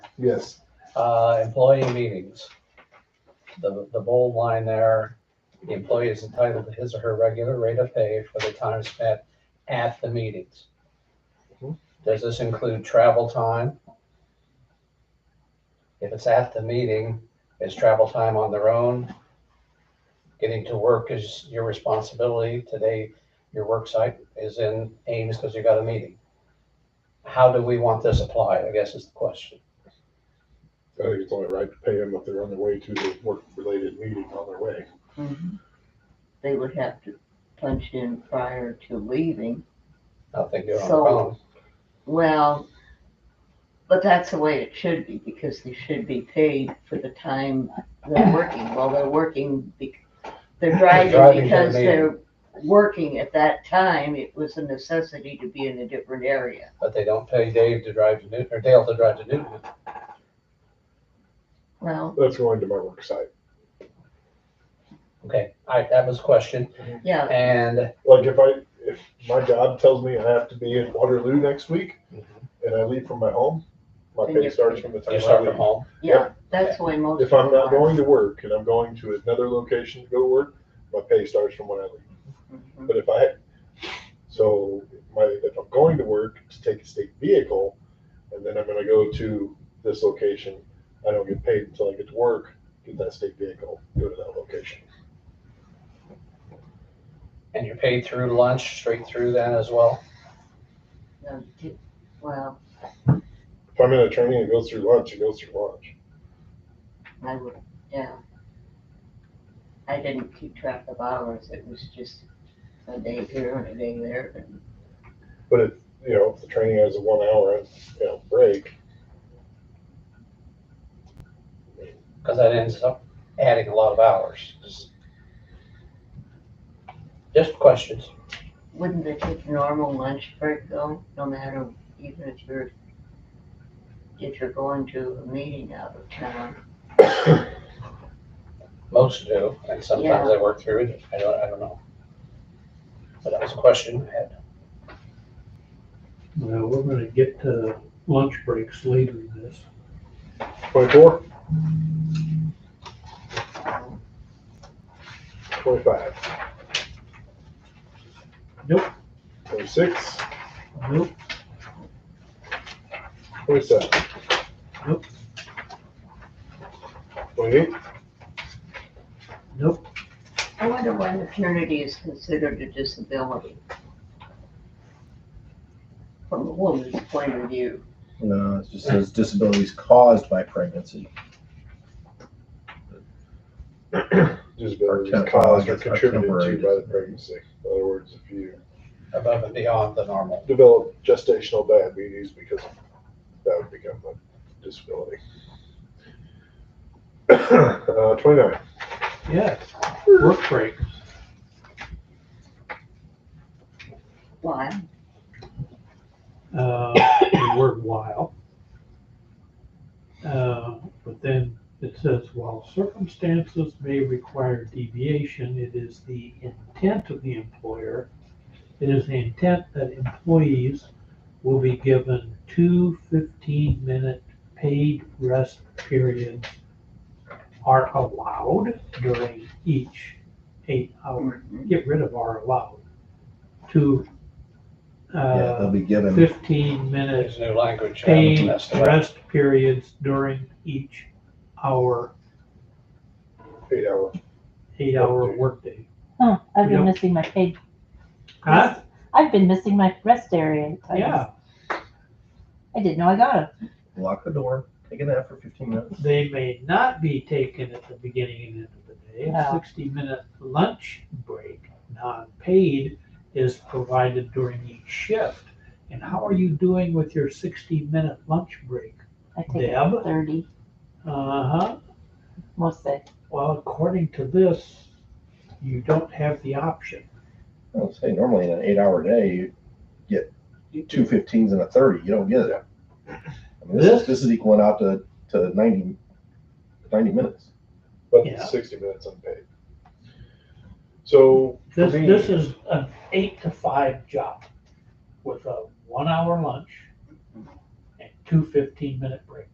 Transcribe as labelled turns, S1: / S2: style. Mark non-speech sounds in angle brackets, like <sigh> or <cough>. S1: Yes.
S2: Uh, employee meetings. The, the bold line there, the employee is entitled to his or her regular rate of pay for the time spent at the meetings.
S1: Mhm.
S2: Does this include travel time? If it's at the meeting, is travel time on their own? Getting to work is your responsibility. Today, your work site is in Ames because you got a meeting. How do we want this applied, I guess is the question.
S1: I think it's only right to pay them if they're on their way to the work-related meeting on their way.
S3: Mhm. They would have to punch in prior to leaving.
S2: I don't think they're on
S3: So-
S2: their own.
S3: Well, but that's the way it should be because they should be paid for the time
S2: <coughs>
S3: they're working. Well, they're working, bec- they're driving
S2: driving to the
S3: because they're working at that time. It was a necessity to be in a different area.
S2: But they don't pay Dave to drive to Newton, or Dale to drive to Newton.
S3: Well,
S1: That's going to my work site.
S2: Okay, all right, that was a question.
S3: yeah,
S2: And
S1: Like if I, if my job tells me I have to be in Waterloo next week and I leave from my home, my
S3: Then
S1: pay
S3: you're-
S1: starts from the time
S2: you
S1: I
S2: start from
S1: leave.
S2: home.
S3: yeah, that's the way most.
S1: If I'm
S3: people
S1: not
S3: are.
S1: going to work and I'm going to another location to go to work, my pay starts from when I leave.
S3: Mhm.
S1: But if I, so my, if I'm going to work to take a state vehicle, and then I'm gonna go to this location, I don't get paid until I get to work, get that state vehicle, go to that location.
S2: And you're paid through lunch, straight through then as well.
S3: No, di- Well,
S1: If I'm in a training, it goes through lunch, it goes through lunch.
S3: I would, yeah. I didn't keep track of hours, it was just a day here and a day there, and
S1: You know, if the training has a one hour, you know, break,
S2: Because that ends up adding a lot of hours. Just- Just questions.
S3: wouldn't they take a normal lunch break though, no matter, even if you're, if you're going to a meeting out of town?
S2: Most do, and sometimes I work through it. I don't, I don't know. But that was a question I had.
S4: Well, we're gonna get to lunch breaks later in this.
S1: twenty-four? Twenty-five?
S4: Nope.
S1: Twenty-six,
S4: Nope,
S1: twenty-seven?
S4: Nope.
S1: Twenty-eight?
S4: nope,
S3: I wonder why maternity is considered a disability. From a woman's point of view,
S5: No, Uh, it just says disabilities caused by pregnancy.
S1: disabilities
S5: Or temp-
S1: caused or
S5: or
S1: contributed
S5: temporary
S1: to by the
S5: disability.
S1: pregnancy. In other words, if you
S2: Above and beyond the normal.
S1: develop gestational diabetes because that would become a disability. <coughs> Uh, twenty-nine,
S4: yes, work breaks.
S3: why?
S4: uh, <coughs> the word while. Uh, but then it says, while circumstances may require deviation, it is the intent of the employer, it is the intent that employees will be given two 15-minute paid rest periods are allowed during each eight-hour,
S3: Mhm.
S4: get rid of are allowed, to,
S5: Yeah,
S4: uh,
S5: they'll be given,
S4: fifteen minute
S2: There's new language. I haven't
S4: paid
S2: messed it up.
S4: rest periods during each hour,
S1: eight hour.
S4: eight hour workday.
S6: Huh, I've been
S4: Yep.
S6: missing my paid.
S4: Huh?
S6: I've been missing my rest area. times.
S4: Yeah,
S6: I didn't know I got 'em.
S5: lock the door, take a nap for fifteen minutes.
S4: they may not be taken at the beginning and end of the day. A
S6: No.
S4: sixty minute lunch break, non-paid, is provided during each shift. And how are you doing with your sixty minute lunch break?
S6: I take it
S4: Deb?
S6: at thirty,
S4: Uh-huh,
S6: most days.
S4: well, according to this, you don't have the option.
S5: I would say normally in an eight-hour day, you get two 15s and a thirty, you don't get it. I mean, this,
S4: This-
S5: is- this is equaling out to, to 90 90 minutes.
S1: But
S4: Yeah.
S1: sixty minutes unpaid. So for
S4: This,
S1: me,
S4: this is an eight to five job with a one hour lunch and two 15 minute breaks.